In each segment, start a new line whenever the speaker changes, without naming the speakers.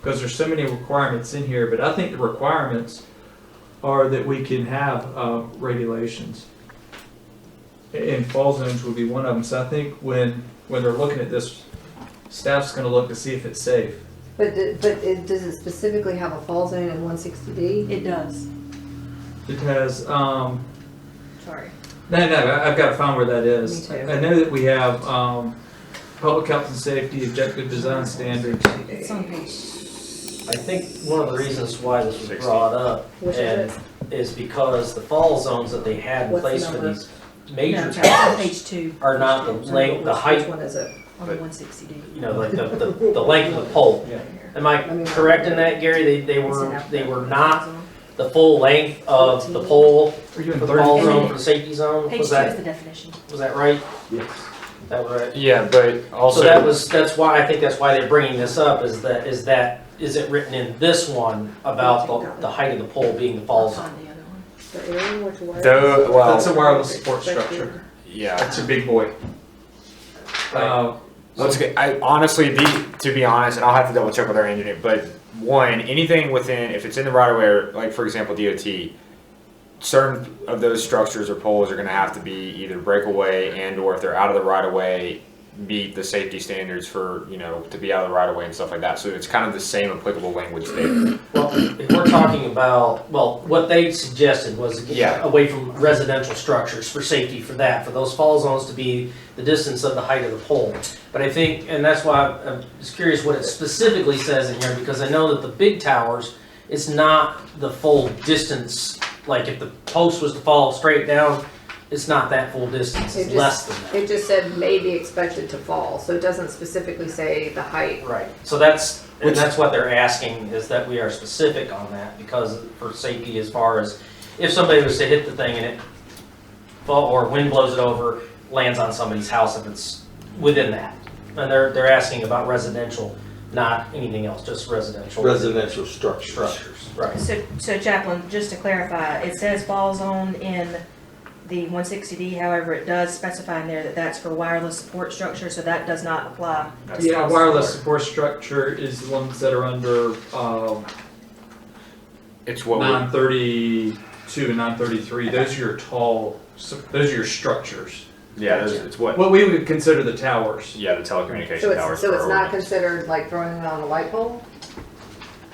because there's so many requirements in here, but I think the requirements are that we can have, uh, regulations. And fall zones would be one of them, so I think when, when they're looking at this, staff's gonna look to see if it's safe.
But, d- but it, does it specifically have a fall zone in one sixty D?
It does.
It has, um,
Sorry.
No, no, I- I've got to find where that is.
Me too.
I know that we have, um, public health and safety objective design standards.
It's on page.
I think one of the reasons why this was brought up
Which
and
is it?
is because the fall zones that they had in
What's the
place for
number?
these
No,
major
it's on
towers
page two
are not the length, um, the
Which- Which
height,
one is it?
on the one sixty D.
you know, like the, the, the length of the pole.
Yeah.
Am I correct in that, Gary? They, they were, they were not the full length of the pole
We're doing
for the fall
thirty.
zone, for the safety zone?
Page two
Was
is
that,
the definition.
was that right?
Yes.
That right?
Yeah, but also.
So that was, that's why, I think that's why they're bringing this up is that, is that, is it written in this one about the, the height of the pole being the fall
I'll
zone?
find the other one.
The area which wires-
Though, well,
That's a wireless support structure.
yeah.
That's a big boy. Uh,
Let's get, I honestly, the, to be honest, and I'll have to double check with our engineer, but one, anything within, if it's in the right of way, or, like for example, DOT, certain of those structures or poles are gonna have to be either breakaway and or if they're out of the right of way, meet the safety standards for, you know, to be out of the right of way and stuff like that. So it's kind of the same applicable language there.
Well, if we're talking about, well, what they suggested was
Yeah.
away from residential structures for safety for that, for those fall zones to be the distance of the height of the pole. But I think, and that's why I'm just curious what it specifically says in here, because I know that the big towers, it's not the full distance. Like if the post was to fall straight down, it's not that full distance,
It
it's
just-
less than
It just said may be expected to fall, so it doesn't specifically say the height.
that. Right, so that's, and
Which-
that's what they're asking, is that we are specific on that, because for safety as far as if somebody was to hit the thing and it, fall or wind blows it over, lands on somebody's house if it's within that. And they're, they're asking about residential, not anything else, just residential.
Residential structures.
Structures, right.
So, so Chaplain, just to clarify, it says fall zone in the one sixty D, however, it does specify in there that that's for wireless support structure, so that does not apply.
That's
yeah,
not-
wireless support structure is the ones that are under, um,
It's what we,
nine thirty-two and nine thirty-three. Those are your tall, su- those are your structures.
yeah, those- it's what,
What we would consider the towers.
yeah, the
So
telecommunication
it's,
towers.
so
for
it's
our
not
ordinance.
considered like throwing it on a light pole?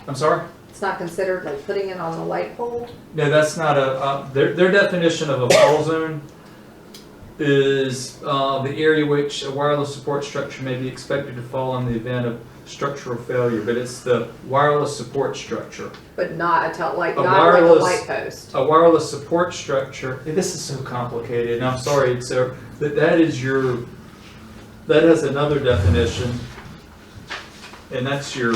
I'm sorry?
It's not considered like putting it on a light pole?
No, that's not a, uh, their, their definition of a fall zone is, uh, the area which a wireless support structure may be expected to fall in the event of structural failure, but it's the wireless support structure.
But not a tel, like,
A
not like a
wireless-
light post?
A wireless support structure, eh, this is so complicated, and I'm sorry, so, that, that is your, that has another definition. And that's your,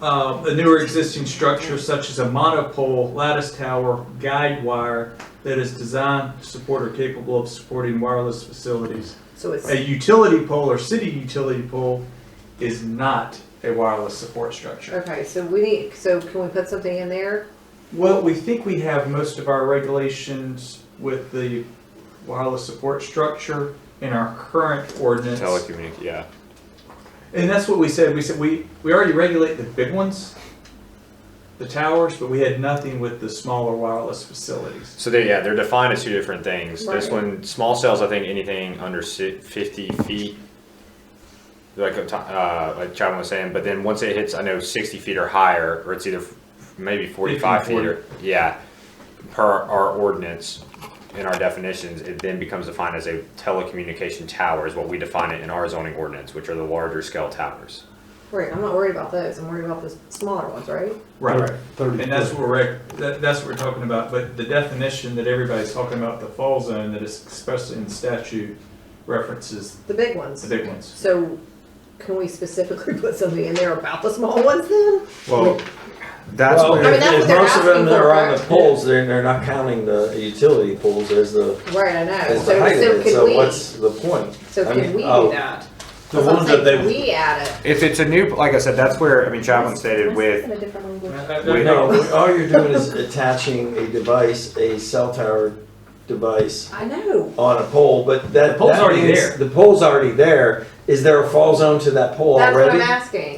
uh, a newer existing structure such as a monopole, lattice tower, guide wire that is designed to support or capable of supporting wireless facilities.
So it's,
A utility pole or city utility pole is not a wireless support structure.
okay, so we need, so can we put something in there?
Well, we think we have most of our regulations with the wireless support structure in our current ordinance.
Telecommunic, yeah.
And that's what we said, we said, we, we already regulate the big ones, the towers, but we had nothing with the smaller wireless facilities.
So they, yeah, they're defined as two different things. This
Right.
one, small cells, I think anything under si- fifty feet, like uh, uh, like Chapman was saying. But then once it hits, I know sixty feet or higher, or it's either f- maybe forty-five
50,
feet or yeah, per our ordinance in our definitions, it then becomes defined as a telecommunication tower is what we define it in our zoning ordinance, which are the larger scale towers.
Right, I'm not worried about those, I'm worried about the smaller ones, right?
Thirty.
And that's what we're, rec- that, that's what we're talking about, but the definition that everybody's talking about, the fall zone, that is expressed in statute references
The big ones.
the big ones.
So can we specifically put something in there about the small ones then?
Well, that's
I mean, that's what they're
Most of them
asking
that
for,
are on the
correct?
poles, they're, they're not counting the utility poles as the,
Right, I know,
as
so,
the height of
so
it, so
can we,
what's the point?
so
I
can
mean,
we do
oh,
that?
The
That's what I'm
ones that
saying,
they,
We add it,
if it's a new, like I said, that's where I mean Chapman stated with Wait,
no, all you're doing is attaching a device, a cell tower device
I know,
on a pole, but that.
The pole's
that
already
means
there.
The pole's already there. Is there a fall zone to that pole
that's
already?
what I'm asking.